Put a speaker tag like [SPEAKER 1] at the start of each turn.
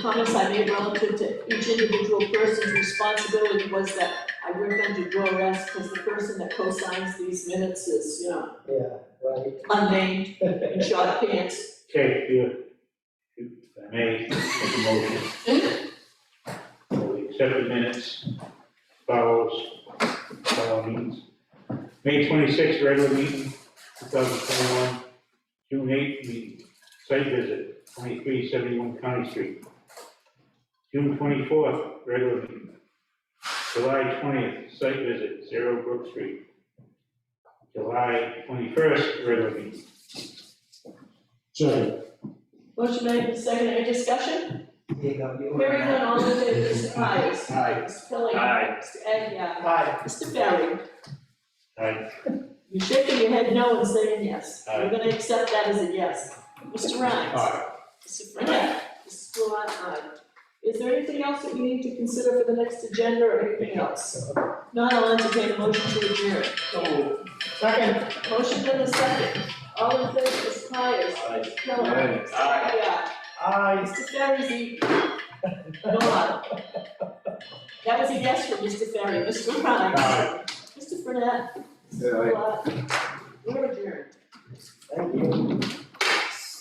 [SPEAKER 1] comments I made relative to each individual person's responsibility was that I recommended Joe Rest, because the person that co-signs these minutes is, you know,
[SPEAKER 2] yeah, right.
[SPEAKER 1] unnamed, in short pants.
[SPEAKER 3] Okay, you, if I may, make a motion. So we accept the minutes, follows, follow means. May twenty-sixth, regular meeting, two thousand twenty-one, June eighth, meeting, site visit, twenty-three seventy-one County Street. June twenty-fourth, regular meeting. July twentieth, site visit, zero Brook Street. July twenty-first, regular meeting.
[SPEAKER 4] Second.
[SPEAKER 1] Motion made and seconded, any discussion?
[SPEAKER 2] There you go, you were
[SPEAKER 1] Hearing none, all in favor, Mr. Pies.
[SPEAKER 4] Aye.
[SPEAKER 1] Mr. Kelly.
[SPEAKER 4] Aye.
[SPEAKER 1] Mr. Egia.
[SPEAKER 2] Aye.
[SPEAKER 1] Mr. Barry.
[SPEAKER 3] Aye.
[SPEAKER 1] You're shaking your head no and saying yes.
[SPEAKER 3] Aye.
[SPEAKER 1] We're gonna accept that as a yes. Mr. Rhines.
[SPEAKER 4] Aye.
[SPEAKER 1] Mr. Burnett. Mrs. Fluon, aye. Is there anything else that we need to consider for the next agenda or anything else? Not, I'll entertain a motion to adjourn.
[SPEAKER 2] So, second.
[SPEAKER 1] Motion for the second. All in favor, Mr. Pies. Mr. Kelly.
[SPEAKER 4] Aye.
[SPEAKER 1] Mr. Egia.
[SPEAKER 2] Aye.
[SPEAKER 1] Mr. Ferry, go on. That was a yes from Mr. Ferry, Mr. Ryan.
[SPEAKER 4] Aye.
[SPEAKER 1] Mr. Burnett.
[SPEAKER 4] Aye.
[SPEAKER 1] We're adjourned.
[SPEAKER 2] Thank you.